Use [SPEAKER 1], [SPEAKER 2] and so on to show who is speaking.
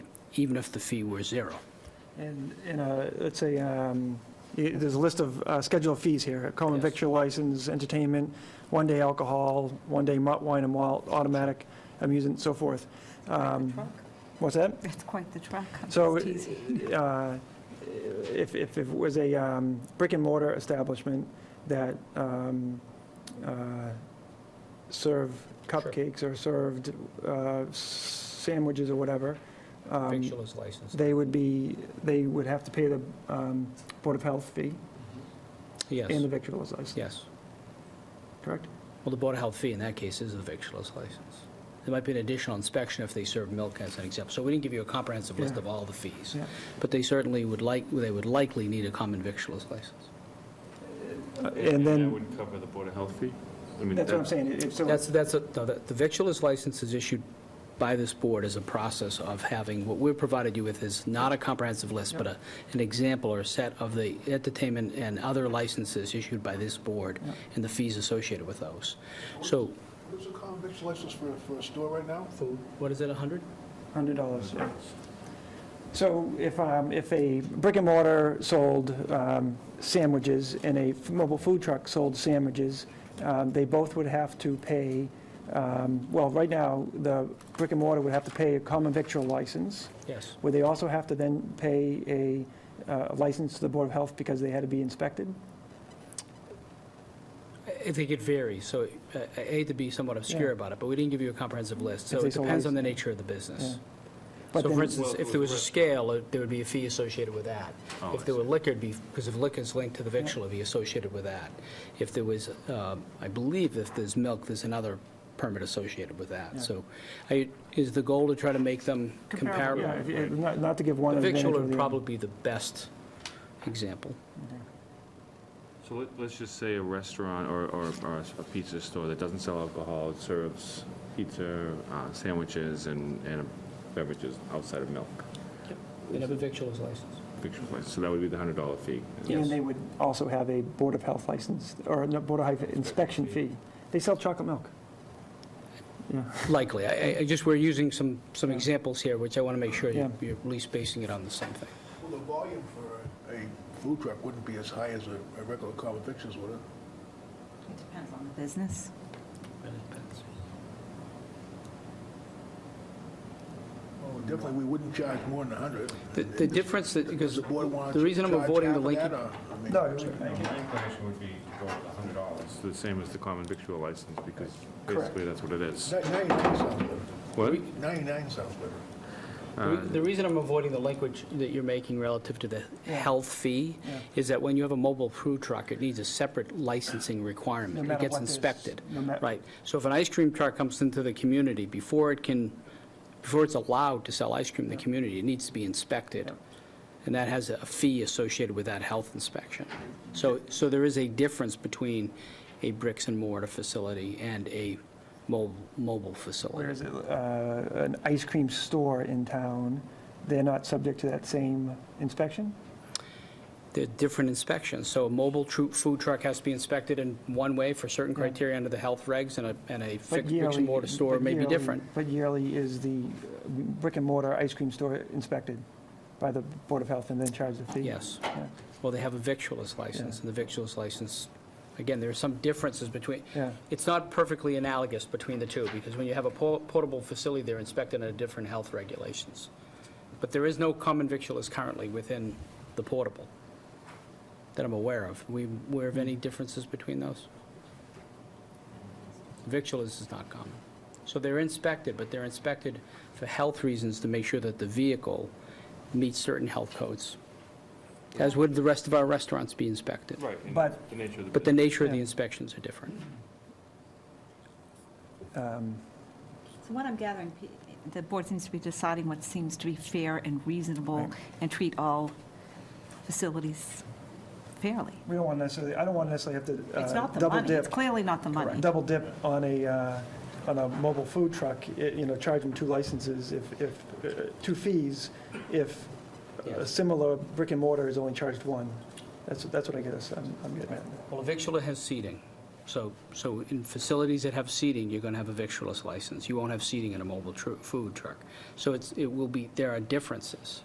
[SPEAKER 1] even if the fee were zero.
[SPEAKER 2] And, in a- let's say, um, y- there's a list of uh, scheduled fees here, common
[SPEAKER 1] Yes.
[SPEAKER 2] victual license, entertainment, one-day alcohol, one-day mu- wine and malt, automatic amusement, so forth. Um, What's that?
[SPEAKER 3] That's quite the truck.
[SPEAKER 2] So uh, if, if it was a um, brick and mortar establishment that um, uh, serve cupcakes or served uh, s- sandwiches or whatever, um,
[SPEAKER 4] Victual is licensed.
[SPEAKER 2] they would be, they would have to pay the um, Board of Health fee and the
[SPEAKER 1] Yes,
[SPEAKER 2] victualer's license,
[SPEAKER 1] yes.
[SPEAKER 2] correct?
[SPEAKER 1] Well, the Board of Health fee in that case is a victualer's license. There might be an additional inspection if they serve milk as an example. So we didn't give you a comprehensive list
[SPEAKER 2] Yeah.
[SPEAKER 1] of all the fees.
[SPEAKER 2] Yeah.
[SPEAKER 1] But they certainly would like, they would likely need a common victualer's license.
[SPEAKER 2] Uh, And
[SPEAKER 5] That
[SPEAKER 2] then,
[SPEAKER 5] would cover the Board of Health fee? I mean,
[SPEAKER 2] that's what I'm
[SPEAKER 5] that-
[SPEAKER 2] saying, if so,
[SPEAKER 1] That's, that's, a- no, that- the victualer's license is issued by this board as a process of having, what we've provided you with is not a comprehensive list, but a, an example or a set of the entertainment and other licenses issued by this board and the fees associated with those. So,
[SPEAKER 6] What's the common vic's license for, for a store right now?
[SPEAKER 1] food, what is it, 100?
[SPEAKER 2] hundred dollars, yeah. So if, um, if a brick and mortar sold um, sandwiches and a f- mobile food truck sold sandwiches, um, they both would have to pay, um, well, right now, the brick and mortar would have to pay a common victual license,
[SPEAKER 1] Yes.
[SPEAKER 2] Would they also have to then pay a uh, license to the Board of Health because they had to be inspected?
[SPEAKER 1] I- I think it varies, so uh, I hate to be somewhat obscure
[SPEAKER 2] Yeah.
[SPEAKER 1] about it, but we didn't give you a comprehensive list, so
[SPEAKER 2] If they
[SPEAKER 1] it
[SPEAKER 2] sold
[SPEAKER 1] depends
[SPEAKER 2] these-
[SPEAKER 1] on the nature of the business.
[SPEAKER 2] But
[SPEAKER 1] So
[SPEAKER 2] then-
[SPEAKER 1] for instance,
[SPEAKER 5] Well,
[SPEAKER 1] if there was a
[SPEAKER 5] with-
[SPEAKER 1] scale, uh, there would be a fee associated with that.
[SPEAKER 5] Oh,
[SPEAKER 1] If
[SPEAKER 5] I
[SPEAKER 1] there were
[SPEAKER 5] see.
[SPEAKER 1] liquor, it'd be, because if liquor's linked to the victual, it'd be associated with that. If there was, um, I believe if there's milk, there's another permit associated with that. So I- is the goal to try to make them
[SPEAKER 3] Comparable.
[SPEAKER 2] Yeah,
[SPEAKER 1] comparable?
[SPEAKER 2] if- if- Not not to give one
[SPEAKER 1] The
[SPEAKER 2] advantage
[SPEAKER 1] victual
[SPEAKER 2] or
[SPEAKER 1] would
[SPEAKER 2] the other.
[SPEAKER 1] probably be the best example.
[SPEAKER 5] So let- let's just say a restaurant or, or or a pizza store that doesn't sell alcohol, it serves pizza, uh, sandwiches, and, and beverages outside of milk.
[SPEAKER 1] And if a victual is licensed.
[SPEAKER 5] Victual license, so that would be the hundred dollar fee.
[SPEAKER 1] Yes.
[SPEAKER 2] And they would also have a Board of Health license, or no, Board of Health inspection fee. They sell chocolate milk.
[SPEAKER 1] Likely. I- I, I just, we're using some, some
[SPEAKER 2] Yeah.
[SPEAKER 1] examples here, which I want to make sure you-
[SPEAKER 2] Yeah.
[SPEAKER 1] you're at least basing it on the same thing.
[SPEAKER 6] Well, the volume for a food truck wouldn't be as high as a, a regular common vic's, would it?
[SPEAKER 3] It depends on the business.
[SPEAKER 1] Oh,
[SPEAKER 6] Definitely, we wouldn't charge more than a hundred.
[SPEAKER 1] The- The difference, that because
[SPEAKER 6] Does the board want to
[SPEAKER 1] the reason I'm
[SPEAKER 6] charge
[SPEAKER 1] avoiding the
[SPEAKER 6] half of
[SPEAKER 1] Lincoln...
[SPEAKER 6] that, or, I mean,
[SPEAKER 5] My inclination would be to go with hundred dollars. It's the same as the common victual license, because basically that's what it is.
[SPEAKER 6] ni- Ninety-nine sounds better.
[SPEAKER 5] What?
[SPEAKER 6] Ninety-nine sounds better.
[SPEAKER 1] The re- The reason I'm avoiding the language that you're making relative to the health fee is that when you have a mobile food truck, it needs a separate licensing
[SPEAKER 2] No
[SPEAKER 1] requirement. It
[SPEAKER 2] matter
[SPEAKER 1] gets
[SPEAKER 2] what it is,
[SPEAKER 1] inspected.
[SPEAKER 2] no matter-
[SPEAKER 1] Right. So if an ice cream truck comes into the community, before it can, before it's allowed to sell ice cream in the community, it needs to be inspected. And that has a fee associated with that health inspection. So, so there is a difference between a bricks and mortar facility and a mo- mobile
[SPEAKER 2] Where
[SPEAKER 1] facility.
[SPEAKER 2] is it? Uh, An ice cream store in town, they're not subject to that same inspection?
[SPEAKER 1] They're different inspections. So a mobile tru- food truck has to be inspected in one way for certain criteria under the health regs, and a, and a
[SPEAKER 2] But
[SPEAKER 1] fixed bricks and mortar
[SPEAKER 2] yearly-
[SPEAKER 1] store
[SPEAKER 2] but
[SPEAKER 1] may be
[SPEAKER 2] yearly-
[SPEAKER 1] different.
[SPEAKER 2] But yearly is the uh, brick and mortar ice cream store inspected by the Board of Health and then charged the fee?
[SPEAKER 1] Yes.
[SPEAKER 2] Yeah.
[SPEAKER 1] Well, they have a victualer's license, and the victualer's license, again, there are some differences between,
[SPEAKER 2] Yeah.
[SPEAKER 1] it's not perfectly analogous between the two, because when you have a por- portable facility, they're inspected under different health regulations. But there is no common victualers currently within the portable that I'm aware of. We aware of any differences between those? Victualers is not common. So they're inspected, but they're inspected for health reasons to make sure that the vehicle meets certain health codes, as would the rest of our restaurants be inspected.
[SPEAKER 5] Right, and
[SPEAKER 2] But-
[SPEAKER 5] the nature of the
[SPEAKER 1] But the
[SPEAKER 5] business.
[SPEAKER 1] nature of the
[SPEAKER 2] Yeah.
[SPEAKER 1] inspections are different.
[SPEAKER 3] So what I'm gathering, pe- the board seems to be deciding what seems to be fair and reasonable and treat all facilities fairly.
[SPEAKER 2] We don't want necessarily, I don't want to necessarily have to
[SPEAKER 3] It's
[SPEAKER 2] uh,
[SPEAKER 3] not the
[SPEAKER 2] double
[SPEAKER 3] money. It's
[SPEAKER 2] dip,
[SPEAKER 3] clearly not the money.
[SPEAKER 2] double dip on a, uh, on a mobile food truck, i- you know, charge them two licenses if, if, uh, two fees if a
[SPEAKER 1] Yes.
[SPEAKER 2] similar brick and mortar is only charged one. That's, that's what I guess I'm I'm getting at.
[SPEAKER 1] Well, a victualler has seating. So, so in facilities that have seating, you're going to have a victualist license. You won't have seating in a mobile tru- food truck. So it's, it will be, there are differences.